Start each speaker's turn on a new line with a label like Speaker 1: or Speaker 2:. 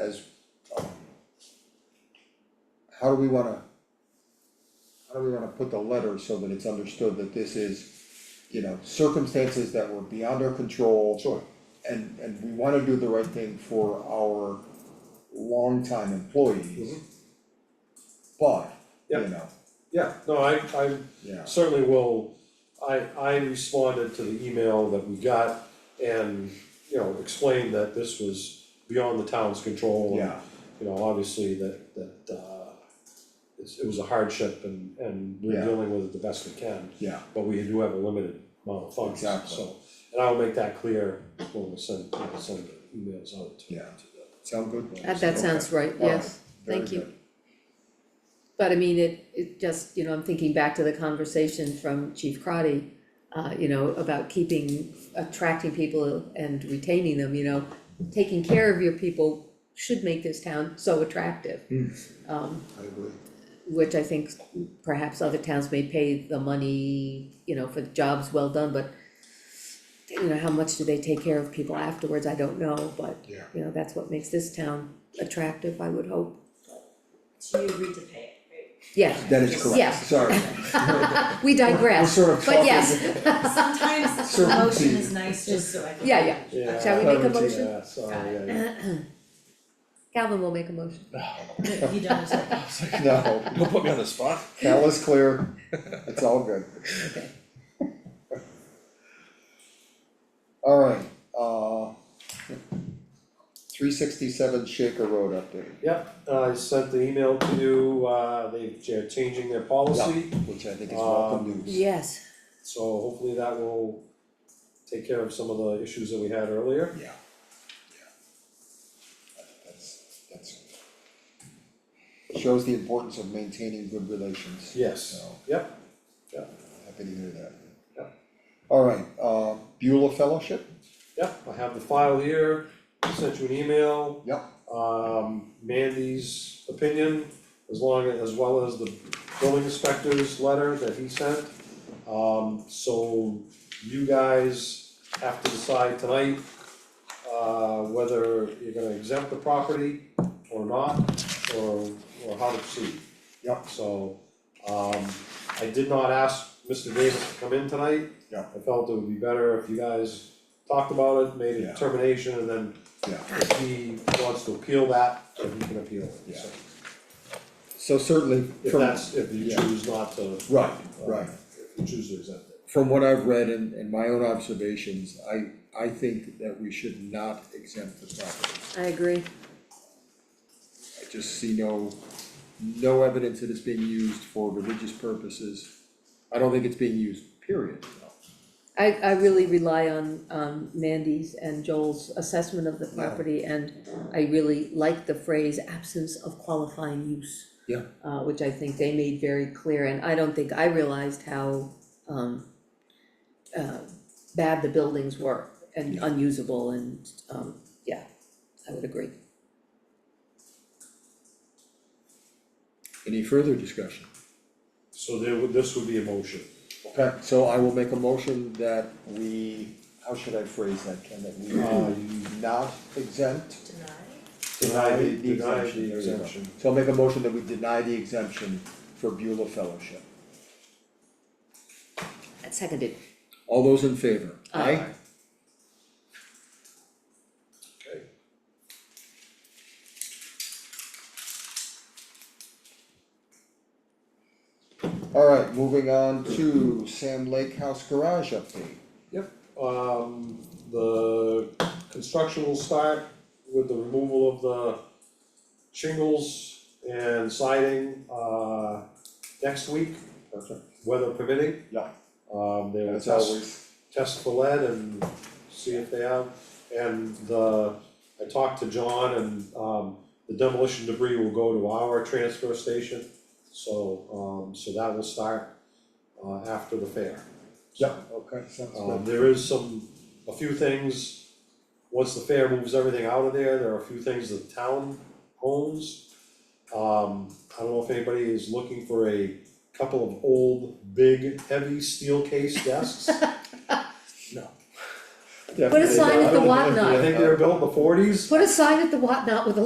Speaker 1: um, do we wanna? How do we wanna put the letter so that it's understood that this is, you know, circumstances that were beyond our control?
Speaker 2: Sure.
Speaker 1: And and we wanna do the right thing for our longtime employees. But, you
Speaker 2: Mm-hmm. Yep.
Speaker 1: know,
Speaker 2: Yeah, no, I, I
Speaker 1: yeah,
Speaker 2: certainly will, I, I responded to the email that we got and, you know, explained that this was beyond the town's control. and,
Speaker 1: yeah,
Speaker 2: You know, obviously that, that, uh, it's, it was a hardship and, and we're
Speaker 1: Yeah.
Speaker 2: dealing with it the best we can,
Speaker 1: yeah,
Speaker 2: but we do have a limited amount of funds, so.
Speaker 1: Exactly.
Speaker 2: And I'll make that clear when we send, when we send the emails out to, to
Speaker 1: Yeah.
Speaker 2: the
Speaker 1: sound good?
Speaker 3: Uh, That sounds right,
Speaker 1: All right,
Speaker 3: yes, thank
Speaker 1: Very
Speaker 3: you.
Speaker 1: good.
Speaker 3: But I mean, it, it just, you know, I'm thinking back to the conversation from Chief Crotty, uh, you know, about keeping, attracting people and retaining them, you know. Taking care of your people should make this town so attractive. Um,
Speaker 1: I agree.
Speaker 3: which I think perhaps other towns may pay the money, you know, for the jobs well done, but you know, how much do they take care of people afterwards, I don't know, but
Speaker 1: Yeah.
Speaker 3: you know, that's what makes this town attractive, I would hope.
Speaker 4: So you agreed to pay it,
Speaker 3: Yeah,
Speaker 1: That is
Speaker 3: Yeah.
Speaker 1: correct, sorry.
Speaker 3: we
Speaker 1: We're
Speaker 3: digress,
Speaker 1: sort of
Speaker 3: but
Speaker 1: talking-
Speaker 3: yes,
Speaker 4: right? Sometimes
Speaker 1: Sure.
Speaker 4: the motion is nice, just so I can.
Speaker 3: Yeah, yeah.
Speaker 2: Yeah.
Speaker 3: Shall we make a motion?
Speaker 2: Yeah, sorry, yeah, yeah.
Speaker 3: Calvin will make a motion.
Speaker 4: You don't, have to-
Speaker 1: No,
Speaker 5: Don't put me on the spot.
Speaker 1: that was clear, it's all good. Alright, uh. Three sixty-seven Shaker Road update,
Speaker 2: Yep, uh, I sent the email to you, uh, they, they're changing their policy,
Speaker 1: which I
Speaker 2: Um,
Speaker 1: think is welcome news.
Speaker 3: Yes,
Speaker 2: so hopefully that will take care of some of the issues that we had earlier.
Speaker 1: Yeah. Yeah. That's, that's. Shows the importance of maintaining good relations,
Speaker 2: Yes,
Speaker 1: so
Speaker 2: yep,
Speaker 1: happy to hear that.
Speaker 2: Yeah.
Speaker 1: Alright, uh, Beulah Fellowship,
Speaker 2: yep, I have the file here, sent you an email.
Speaker 1: Yep.
Speaker 2: Um, Mandy's opinion, as long, as well as the building inspector's letter that he sent. Um, so you guys have to decide tonight, uh, whether you're gonna exempt the property or not, or, or how to proceed.
Speaker 1: Yep.
Speaker 2: So, um, I did not ask Mr. Davis to come in tonight.
Speaker 1: Yep.
Speaker 2: I felt it would be better if you guys talked about it, made a
Speaker 1: Yeah.
Speaker 2: determination, and then
Speaker 1: yeah,
Speaker 2: if he wants to appeal that, then he can appeal it, so.
Speaker 1: so certainly
Speaker 2: If
Speaker 1: from.
Speaker 2: that's, if you
Speaker 1: Yeah.
Speaker 2: choose not to.
Speaker 1: Right,
Speaker 2: uh,
Speaker 1: right.
Speaker 2: If you choose to exempt it.
Speaker 1: from what I've read and, and my own observations, I, I think that we should not exempt the property.
Speaker 3: I agree,
Speaker 1: I just see no, no evidence that it's being used for religious purposes. I don't think it's being used, period.
Speaker 3: I, I really rely on, um, Mandy's and Joel's assessment of the property, and I really like the phrase absence of qualifying use.
Speaker 1: Yeah.
Speaker 3: Uh, which I think they made very clear, and I don't think I realized how, um, uh, bad the buildings were and
Speaker 1: Yeah.
Speaker 3: unusable and, um, yeah, I would agree.
Speaker 1: Any further discussion?
Speaker 2: So there would, this would be a motion.
Speaker 1: Okay, so I will make a motion that we, how should I phrase that, Ken, that we uh, not exempt?
Speaker 4: deny,
Speaker 2: Deny the- deny the
Speaker 1: there you go.
Speaker 2: exemption.
Speaker 1: So I'll make a motion that we deny the exemption for Beulah Fellowship.
Speaker 3: Seconded,
Speaker 1: All those in favor?
Speaker 3: Aye.
Speaker 2: Okay.
Speaker 1: Alright, moving on to Sam Lake House Garage update.
Speaker 2: Um, the construction will start with the removal of the shingles and siding, uh, next week,
Speaker 1: Perfect.
Speaker 2: weather permitting.
Speaker 1: Yeah.
Speaker 2: Um, they will
Speaker 1: As
Speaker 2: test
Speaker 1: always,
Speaker 2: test for lead and see if they have. And the, I talked to John and, um, the demolition debris will go to our transfer station. So, um, so that will start, uh, after the fair.
Speaker 1: yeah, Uh, okay, sounds
Speaker 2: Um,
Speaker 1: good.
Speaker 2: there is some, a few things, once the fair moves everything out of there, there are a few things the town owns. Um, I don't know if anybody is looking for a couple of old, big, heavy steel case desks.
Speaker 3: Put a sign at the
Speaker 1: Definitely.
Speaker 3: whatnot.
Speaker 2: I think they were built in the forties.
Speaker 3: put a sign at the whatnot with a